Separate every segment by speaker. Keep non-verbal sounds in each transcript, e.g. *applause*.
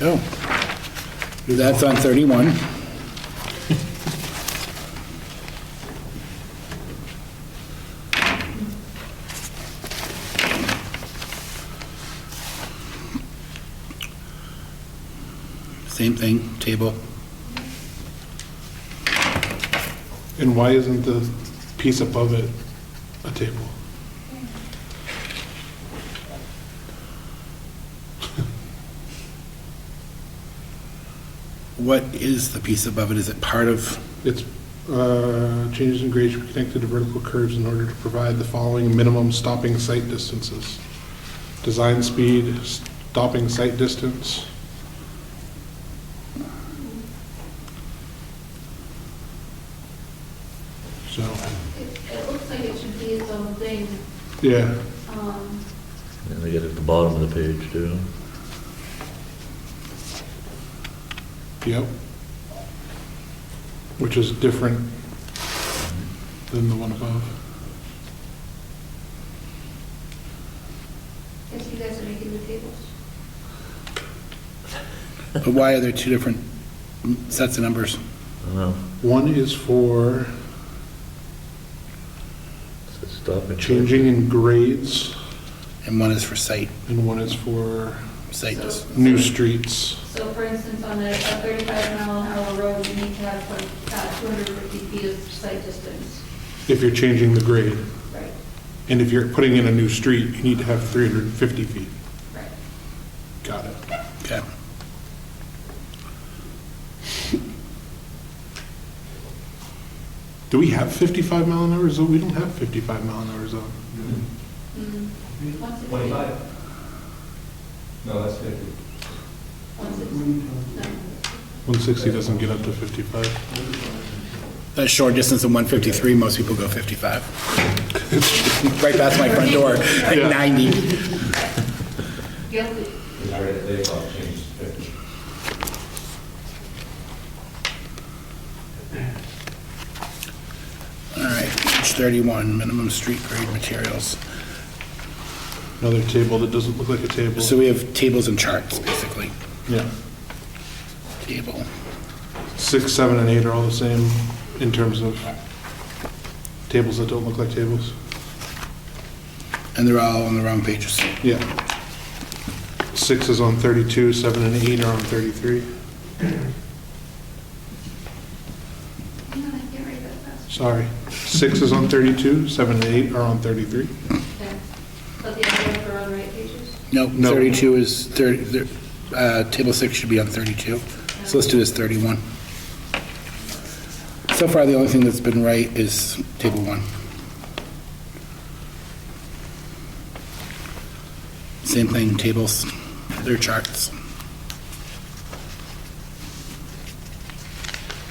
Speaker 1: Oh. That's on 31. Same thing, table.
Speaker 2: And why isn't the piece above it a table?
Speaker 1: What is the piece above it? Is it part of,
Speaker 2: It's, uh, changes in grades should be connected to vertical curves in order to provide the following minimum stopping sight distances. Design speed, stopping sight distance. So,
Speaker 3: It it looks like it should be its own thing.
Speaker 2: yeah,
Speaker 3: Um,
Speaker 4: And they get it at the bottom of the page, too.
Speaker 2: yep. Which is different than the one above.
Speaker 3: Guess you guys are making the tables.
Speaker 1: but why are there two different sets of numbers?
Speaker 4: I don't know.
Speaker 2: One is for
Speaker 4: It's a stopping.
Speaker 2: changing in grades,
Speaker 1: And one is for site,
Speaker 2: and one is for
Speaker 1: site dis-
Speaker 2: new streets.
Speaker 3: So for instance, on a a 35 mile an hour road, you need to have like uh, 250 feet of sight distance.
Speaker 2: If you're changing the grade,
Speaker 3: Right,
Speaker 2: and if you're putting in a new street, you need to have 350 feet.
Speaker 3: right.
Speaker 2: Got it.
Speaker 1: Okay.
Speaker 2: Do we have 55 mile an hour zone? We don't have 55 mile an hour zone.
Speaker 3: Mm, Once it's-
Speaker 5: 25? No, that's 50.
Speaker 3: Once it's, no.
Speaker 2: 160 doesn't get up to 55.
Speaker 1: That short distance of 153, most people go 55. *laughs* Right past my front door, like
Speaker 2: Yeah.
Speaker 1: 90.
Speaker 3: Guilty.
Speaker 5: Because they've all changed to 50.
Speaker 1: All right, page 31, minimum street grade materials.
Speaker 2: Another table that doesn't look like a table.
Speaker 1: So we have tables and charts, basically.
Speaker 2: Yeah.
Speaker 1: Table.
Speaker 2: Six, seven, and eight are all the same in terms of tables that don't look like tables.
Speaker 1: And they're all on the wrong pages.
Speaker 2: Yeah. Six is on 32, seven and eight are on 33.
Speaker 3: Hang on, I can't read that fast.
Speaker 2: Sorry. Six is on 32, seven and eight are on 33.
Speaker 3: Okay. But the other are on right pages?
Speaker 1: Nope,
Speaker 2: No.
Speaker 1: 32 is, 30 there- uh, table six should be on 32. So let's do this 31. So far, the only thing that's been right is table one. Same thing, tables, their charts.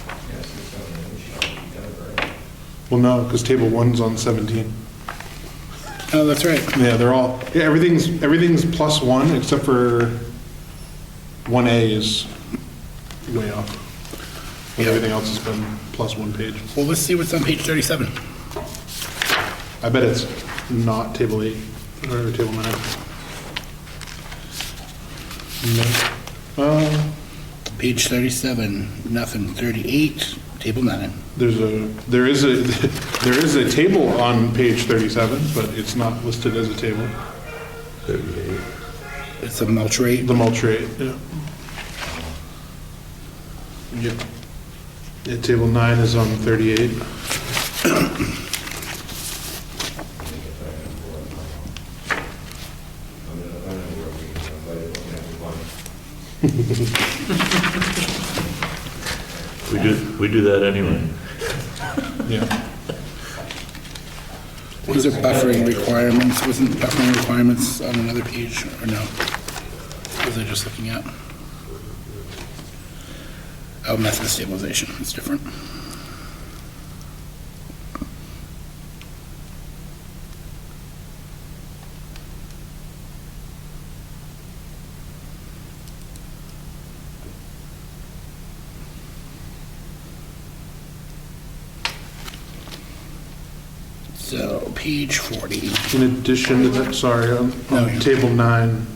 Speaker 5: Yeah, six, seven, and eight shall be done, right?
Speaker 2: Well, no, because table one's on 17.
Speaker 1: Oh, that's right.
Speaker 2: Yeah, they're all, yeah, everything's, everything's plus one except for 1A is way off. And
Speaker 1: Yeah.
Speaker 2: everything else has been plus one page.
Speaker 1: Well, let's see what's on page 37.
Speaker 2: I bet it's not table eight or table nine. No. Uh,
Speaker 1: Page 37, nothing. 38, table nine.
Speaker 2: There's a, there is a, *laughs* there is a table on page 37, but it's not listed as a table.
Speaker 4: Thirty-eight.
Speaker 1: It's a mulch rate.
Speaker 2: The mulch rate, yeah. Yep. Yeah, table nine is on 38.
Speaker 5: I'm gonna, I'm gonna work, we can invite it, we have one.
Speaker 4: We do, we do that anyway.
Speaker 2: Yeah.
Speaker 1: These are buffering requirements. Wasn't buffering requirements on another page, or no? Was I just looking at? Oh, method of stabilization, it's different. So, page 40.
Speaker 2: In addition to that, sorry, on,
Speaker 1: No,
Speaker 2: on
Speaker 1: you're-
Speaker 2: um, table nine,